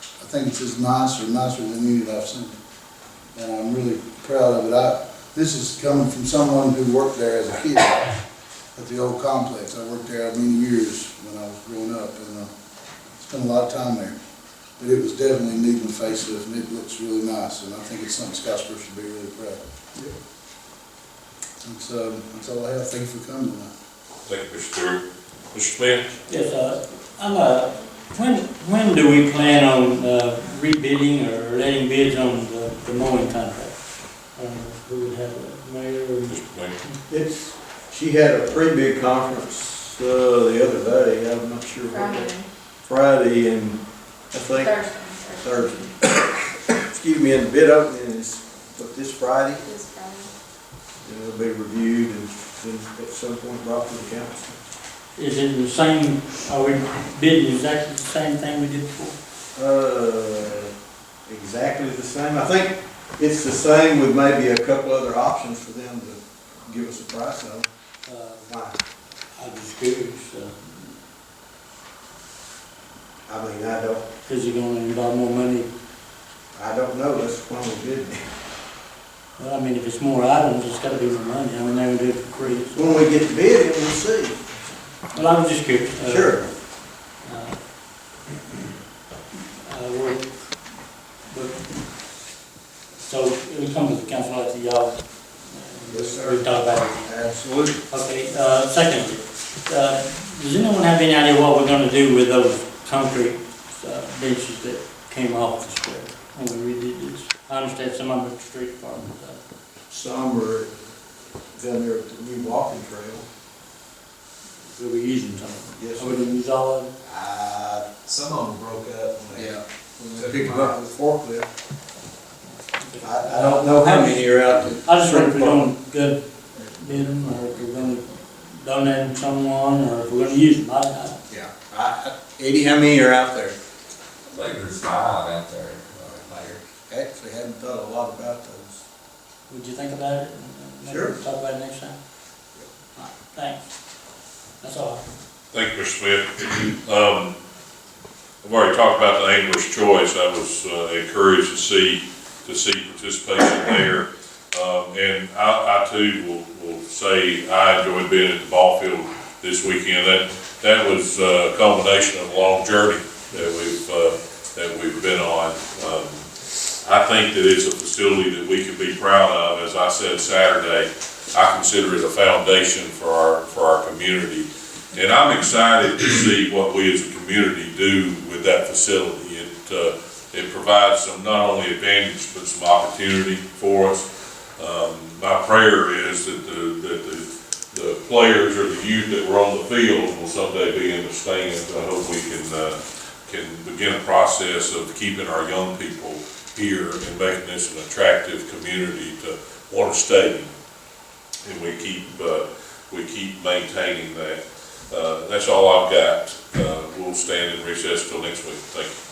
thinks it's nice or nicer than any that I've seen. And I'm really proud of it. I, this is coming from someone who worked there as a kid at the old complex. I worked there many years when I was growing up and, uh, spent a lot of time there. But it was definitely neat and facelift and it looks really nice and I think it's something Scottsboro should be really proud of. And so, that's all I have. Thank you for coming tonight. Thank you, Mr. Stewart. Mr. Smith? Yes, uh, I'm, uh, when, when do we plan on uh, rebidding or letting bids on the the mowing contract? Uh, Who would have it, mayor or? Mr. Mayor? It's, she had a pretty big conference, uh, the other day, I'm not sure what, Friday, day. Friday and I think Thursday. Thursday. Excuse me, and the bid opening is, what, this Friday? This Friday. And it'll be reviewed and then at some point brought to the council. Is it the same, are we bidding exactly the same thing we did before? Uh, exactly the same, I think it's the same with maybe a couple other options for them to give us a price on. Uh, Why? I was curious, uh, I mean, I don't, because you're gonna involve more money. I don't know, that's why we bid. Well, I mean, if it's more items, it's gotta be more money, I mean, they would do it for free. so- When we get the bid, we'll see. Well, I'm just curious. uh, Sure. Uh, uh, we're- but- So it would come to the council after y'all. Yes, sir. We talk about it. Absolutely. Okay, uh, second, uh, does anyone have any idea what we're gonna do with those concrete uh, benches that came off the square when we redid this? I understand some of the street department, uh, Some are down there at the new walking trail. we were using some of Yes, them. Are we gonna use all of them? Uh, Some of them broke up when they yeah. When they pick them up with forklift. I, I don't know know how how many many are out there. I just wonder if we're gonna go bid them, or if we're gonna donate them to someone, or if we're gonna use them, I, I, Yeah. I- I- Eddie, how many are out there? I think there's five out there, uh, Mayor. Actually, hadn't thought a lot about those. would you think about it? Maybe Sure. Talk about it next time? All right, Thanks. That's all. Thank you, Mr. Smith. Um, I've already talked about the English choice. I was uh, encouraged to see, to see participation there. Um, and I, I too will, will say I enjoyed being at the ball field this weekend. That, that was uh, a culmination of a long journey that we've, uh, that we've been on. Um, I think that it's a facility that we can be proud of. As I said Saturday, I consider it a foundation for our, for our community. And I'm excited to see what we as a community do with that facility. It, uh, it provides some, not only advantage, but some opportunity for us. Um, my prayer is that the, that the, the players or the youth that were on the field will someday be in the stands. I hope we can, uh, can begin a process of keeping our young people here and making this an attractive community to want to stay. And we keep, uh, we keep maintaining that. Uh, that's all I've got. Uh, we'll stand in recess till next week. Thank you.